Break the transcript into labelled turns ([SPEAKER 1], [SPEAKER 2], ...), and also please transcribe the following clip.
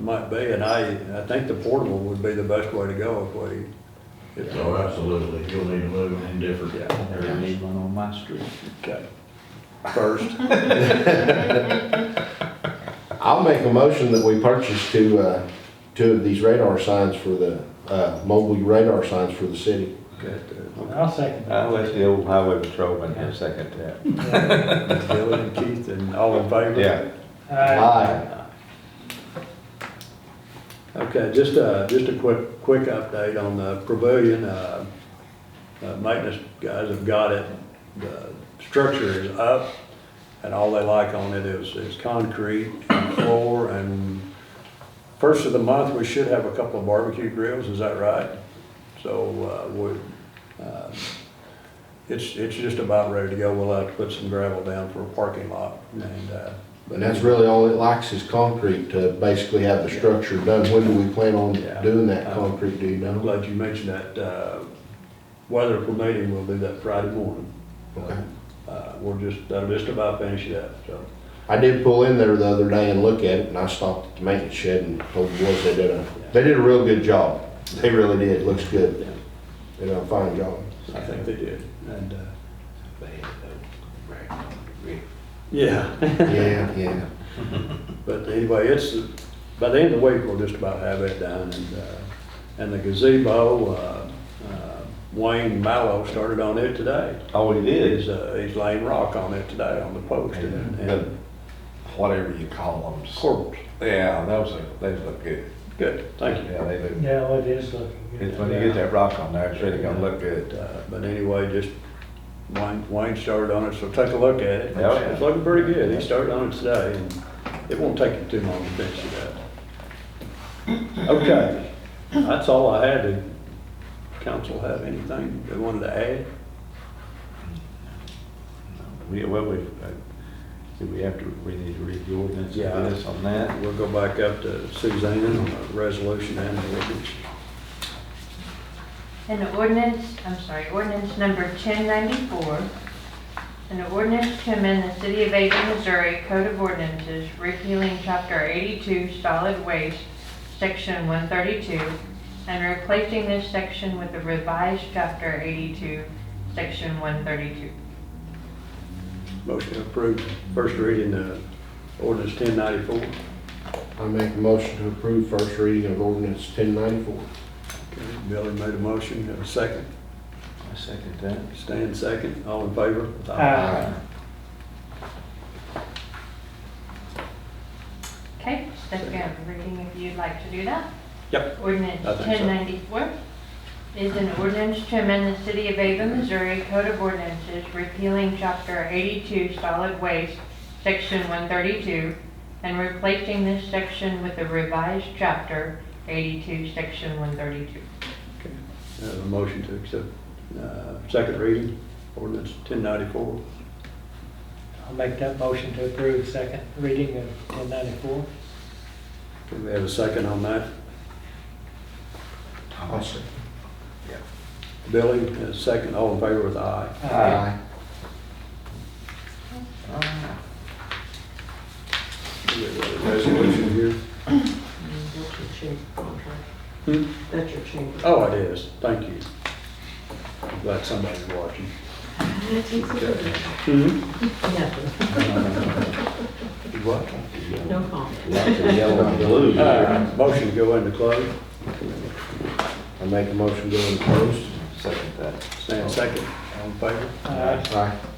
[SPEAKER 1] might be, and I, I think the portable would be the best way to go if we. if-
[SPEAKER 2] So absolutely, you'll need to move in different.
[SPEAKER 1] Yeah,
[SPEAKER 3] I need one on my street.
[SPEAKER 1] okay. First,
[SPEAKER 4] I'll make a motion that we purchase two, uh, two of these radar signs for the, uh, mobile radar signs for the city.
[SPEAKER 1] got
[SPEAKER 3] I'll second that.
[SPEAKER 5] I'll let the old Uh, highway patrolman have a second that.
[SPEAKER 1] uh, Billy and Keith and all in favor?
[SPEAKER 5] Yeah. Uh,
[SPEAKER 4] Aye.
[SPEAKER 1] Okay, just a, just a quick, quick update on the pavilion. Uh, uh, Maintenance guys have got it, the structure is up, and all they like on it is, is concrete and floor, and first of the month, we should have a couple of barbecue grills, is that right? So, uh, we, uh, it's, it's just about ready to go. We'll have to put some gravel down for a parking lot, and, uh,
[SPEAKER 4] And that's really all it likes is concrete to basically have the structure done. When do we plan on
[SPEAKER 1] Yeah.
[SPEAKER 4] doing that concrete, do you know?
[SPEAKER 1] I'm glad you mentioned that. uh, Weather permitting, we'll do that Friday morning.
[SPEAKER 4] Okay.
[SPEAKER 1] Uh, We're just, that'll just about finish it up, so.
[SPEAKER 4] I did pull in there the other day and look at it, and I stopped at the maintenance shed and told the boys they did a, they did a real good job. They really did, looks good. They did a fine job.
[SPEAKER 1] I think they did, and, uh, yeah.
[SPEAKER 4] Yeah, yeah.
[SPEAKER 1] But anyway, it's, by the end of the week, we'll just about have it done, and, uh, and the gazebo, uh, uh, Wayne Mallow started on it today.
[SPEAKER 5] All he did
[SPEAKER 1] He's,
[SPEAKER 5] Oh, is,
[SPEAKER 1] uh, he's laying rock on it today on the post and,
[SPEAKER 5] the-
[SPEAKER 1] and
[SPEAKER 5] whatever you call them.
[SPEAKER 1] corbels.
[SPEAKER 5] Yeah, those, are- those look good.
[SPEAKER 1] Good, thank you.
[SPEAKER 5] Yeah, they look,
[SPEAKER 3] Yeah, well, it is looking good.
[SPEAKER 5] it's when you get that rock on there, it's really gonna look
[SPEAKER 1] But,
[SPEAKER 5] good.
[SPEAKER 1] uh, But anyway, just Wayne, Wayne started on it, so take a look at it.
[SPEAKER 5] Oh, yeah.
[SPEAKER 1] It's looking pretty good. He started on it today, and it won't take him too long to finish it up. Okay, that's all I had. Did council have anything they wanted to add?
[SPEAKER 5] We, well, we, uh, do we have to, we need to read the ordinance
[SPEAKER 1] Yeah.
[SPEAKER 5] on this, on that?
[SPEAKER 1] We'll go back up to Suzanne on the resolution and the ordinance.
[SPEAKER 6] An ordinance, I'm sorry, ordinance number 1094, an ordinance to amend the City of Ada, Missouri Code of Ordinances repealing Chapter 82 Solid Waste, Section 132, and replacing this section with a revised Chapter 82, Section 132.
[SPEAKER 1] Motion to approve first reading of ordinance ten ninety-four.
[SPEAKER 4] I make a motion to approve first reading of ordinance ten ninety-four.
[SPEAKER 1] Billy made a motion, Have a second.
[SPEAKER 5] I second that.
[SPEAKER 1] Stan second, all in favor?
[SPEAKER 3] Aye.
[SPEAKER 6] Okay, second reading if you'd like to do that.
[SPEAKER 1] Yep.
[SPEAKER 6] Ordinance
[SPEAKER 1] I think so.
[SPEAKER 6] 1094 is an ordinance to amend the City of Ava, Missouri Code of Ordinances repealing Chapter 82 Solid Waste, Section 132, and replacing this section with a revised Chapter 82, Section 132.
[SPEAKER 1] I Have a motion to accept, uh, second reading, ordinance ten ninety-four.
[SPEAKER 3] I'll make that motion to approve second reading of 1094.
[SPEAKER 1] Can we have a second on that?
[SPEAKER 4] Awesome.
[SPEAKER 1] Billy, a second, all in favor with aye.
[SPEAKER 4] Aye.
[SPEAKER 5] Ah,
[SPEAKER 1] We got a Resolution here.
[SPEAKER 7] That's your chamber contract.
[SPEAKER 1] Hmm?
[SPEAKER 7] That's your chamber.
[SPEAKER 1] Oh, it is, thank you. I'm Glad somebody's watching. Hmm?
[SPEAKER 7] Nothing.
[SPEAKER 1] What?
[SPEAKER 7] No comment.
[SPEAKER 4] Lots of yellow and blue.
[SPEAKER 1] Uh, Motion to go into close,
[SPEAKER 4] I make a motion to go into closed.
[SPEAKER 5] Second that.
[SPEAKER 1] Stan second, all in favor?
[SPEAKER 3] Aye.
[SPEAKER 4] Aye.